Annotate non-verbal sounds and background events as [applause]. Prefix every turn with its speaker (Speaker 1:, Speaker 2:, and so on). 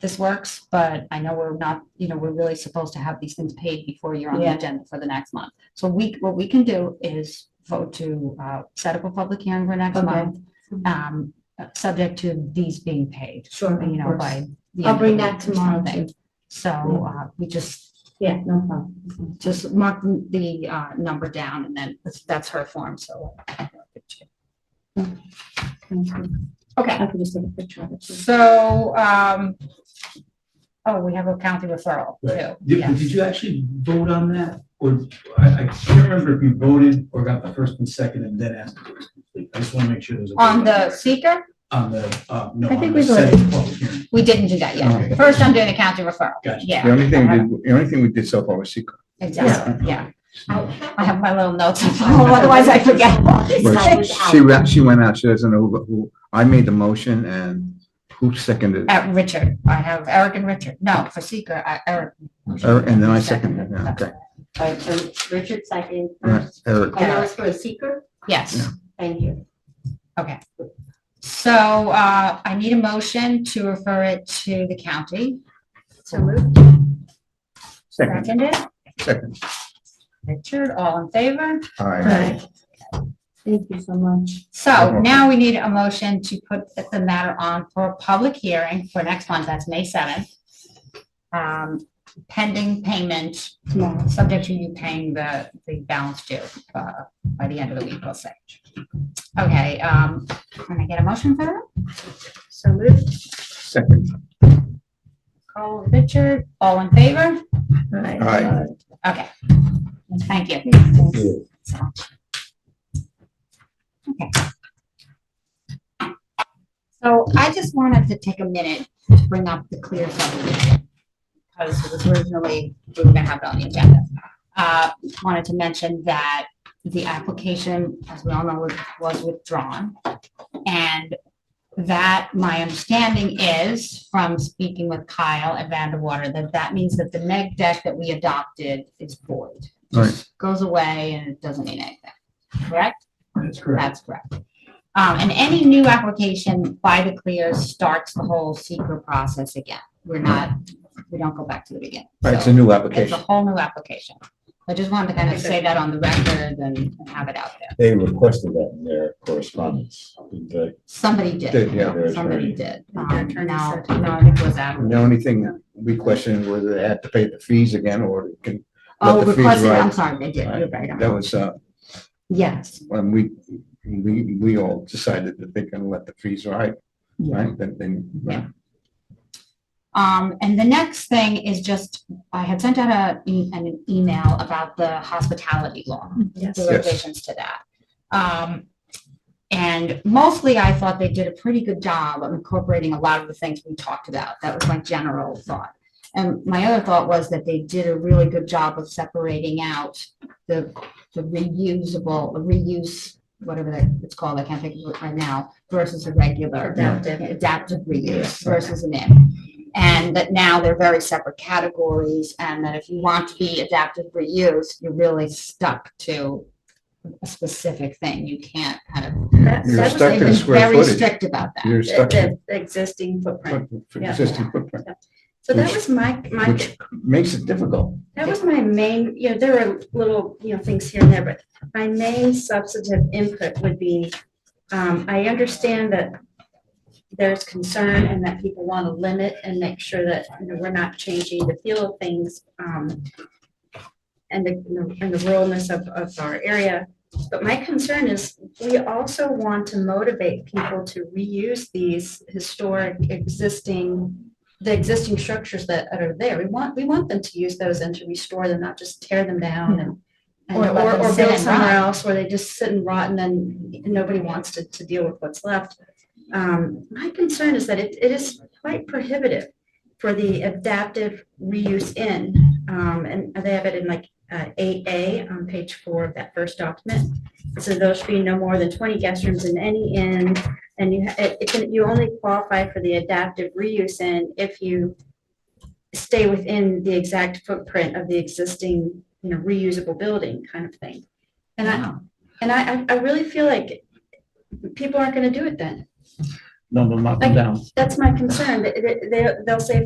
Speaker 1: this works, but I know we're not, you know, we're really supposed to have these things paid before you're on the
Speaker 2: Yeah.
Speaker 1: agenda for the next month. So we, what we can do is vote to uh, set up a public hearing for next
Speaker 2: Okay. Mm-hmm.
Speaker 1: month, um, uh, subject to these being paid,
Speaker 2: Sure,
Speaker 1: you know, by. the end of the
Speaker 2: I'll bring that
Speaker 1: week or
Speaker 2: tomorrow
Speaker 1: something. So uh, we just,
Speaker 2: Yeah, no problem.
Speaker 1: just mark the uh, number down and then that's- that's her form, so. Okay.
Speaker 2: I can just take a picture of it.
Speaker 1: So, um, oh, we have a county referral too.
Speaker 3: Right. Did,
Speaker 1: Yeah.
Speaker 3: did you actually vote on that? Or I, I can't remember if you voted or got the first and second and then asked. for it. I just want to make sure there's. a vote
Speaker 1: On the seeker,
Speaker 3: On the, uh, no.
Speaker 2: I think
Speaker 3: on
Speaker 2: we
Speaker 3: the
Speaker 2: voted.
Speaker 3: second public hearing.
Speaker 1: we didn't do that
Speaker 3: Okay.
Speaker 1: yet. First, I'm doing the county referral.
Speaker 3: Gotcha.
Speaker 1: Yeah.
Speaker 4: The only thing, we did- the only thing we did so far was secret.
Speaker 1: Exactly, yeah.
Speaker 3: Yeah.
Speaker 1: I have my little
Speaker 4: [laughs]
Speaker 1: notes, otherwise I forget.
Speaker 4: Well, She, wa- she went out, she doesn't know who- who, I made the motion and who seconded it?
Speaker 1: Uh, Richard, I have Eric and Richard. No, for seeker, I, Eric.
Speaker 4: Er- And then I seconded it, yeah, okay.
Speaker 2: All right, so Richard second
Speaker 4: Right,
Speaker 2: first,
Speaker 4: Eric,
Speaker 2: and that was for a seeker,
Speaker 1: Yes.
Speaker 4: Yeah.
Speaker 2: thank you.
Speaker 1: So, uh, I need a motion to refer it to the county.
Speaker 2: So moved.
Speaker 4: second,
Speaker 1: Seconded.
Speaker 4: second,
Speaker 1: Richard, all in favor?
Speaker 4: all right.
Speaker 2: Thank you so much.
Speaker 1: So now we need a motion to put the- the matter on for a public hearing for next month, that's May seventh. Um, pending payment,
Speaker 2: Tomorrow.
Speaker 1: subject to you paying the, the balance due, uh, by the end of the week, we'll say. Okay, um, can I get a motion for that?
Speaker 2: So moved.
Speaker 4: Second,
Speaker 1: Call Richard, all in favor?
Speaker 2: All right.
Speaker 4: All right.
Speaker 1: Okay. Thank you. So. Okay. So I just wanted to take a minute to bring up the clear subdivision. Because it was originally, we were gonna have it on the agenda. Uh, wanted to mention that the application, as we all know, was- was withdrawn. And that, my understanding is, from speaking with Kyle at Vanderwater, that that means that the neg deck that we adopted is void.
Speaker 4: Right.
Speaker 1: Just Goes away and it doesn't mean anything, correct?
Speaker 3: That's correct.
Speaker 1: That's correct. Um, and any new application by the clear starts the whole seeker process again. We're not, we don't go back to the beginning.
Speaker 4: Right, it's a
Speaker 1: So
Speaker 4: new
Speaker 1: It's a
Speaker 4: application.
Speaker 1: whole new application. I just wanted to kind of say that on the record and and have it out there.
Speaker 5: They requested that in their correspondence, didn't they?
Speaker 1: Somebody
Speaker 4: Did,
Speaker 1: did,
Speaker 4: yeah.
Speaker 5: Their
Speaker 1: somebody
Speaker 5: attorney.
Speaker 1: did.
Speaker 2: Their
Speaker 1: Um,
Speaker 2: attorney
Speaker 1: Now,
Speaker 2: said-
Speaker 1: now I think it was that.
Speaker 4: The only thing we questioned whether they had to pay the fees again or they can, Let
Speaker 1: Oh,
Speaker 4: the fees
Speaker 1: requested, I'm
Speaker 4: rise.
Speaker 1: sorry, they did. You're right.
Speaker 4: that
Speaker 1: I'm-
Speaker 4: was, uh,
Speaker 1: Yes,
Speaker 4: when we, we, we all decided that they can let the fees ride, right? Then, then,
Speaker 1: Um, and the next thing is just, I had sent out a, e- an email about the hospitality law.
Speaker 2: Yes.
Speaker 1: the
Speaker 4: Yes.
Speaker 1: revisions to that. Um, and mostly I thought they did a pretty good job of incorporating a lot of the things we talked about. That was my general thought. And my other thought was that they did a really good job of separating out the, the reusable, the reuse, whatever that it's called, I can't think of it right now, versus a regular. Adaptive. Adaptive reuse versus an in and that now they're very separate categories, and that if you want to be adaptive reuse, you're really stuck to a specific thing. You can't kind of.
Speaker 2: That-
Speaker 4: You're
Speaker 2: that was
Speaker 4: stuck
Speaker 2: the-
Speaker 4: in
Speaker 1: They've been
Speaker 4: square
Speaker 1: Very
Speaker 4: footage.
Speaker 1: strict about that.
Speaker 4: you're stuck
Speaker 2: The the existing footprint.
Speaker 4: with with
Speaker 2: Yeah.
Speaker 4: existing footprint,
Speaker 2: So that was my, my,
Speaker 4: which makes it difficult.
Speaker 2: that was my main, you know, there were little, you know, things here and there, but my main substantive input would be, um, I understand that there's concern and that people want to limit and make sure that, you know, we're not changing the feel of things, um, and the, and the ruralness of, of our area. But my concern is, we also want to motivate people to reuse these historic existing, the existing structures that are there. We want, we want them to use those and to restore them, not just tear them down and, and-
Speaker 1: Or let
Speaker 2: or,
Speaker 1: them
Speaker 2: or
Speaker 1: sit
Speaker 2: build
Speaker 1: and
Speaker 2: somewhere
Speaker 1: rot.
Speaker 2: else where they just sit and rot and then nobody wants to, to deal with what's left. Um, my concern is that it, it is quite prohibitive for the adaptive reuse in, um, and they have it in like eight uh, A on page four of that first document. So there should be no more than twenty guest rooms in any inn, and you, ha- it, it can, you only qualify for the adaptive reuse in if you stay within the exact footprint of the existing, you know, reusable building kind of thing. And I, and I, I- I really feel like people aren't gonna do it then.
Speaker 3: No, no, knock
Speaker 2: them
Speaker 3: down.
Speaker 2: That's my concern, that, that, they- they'll say,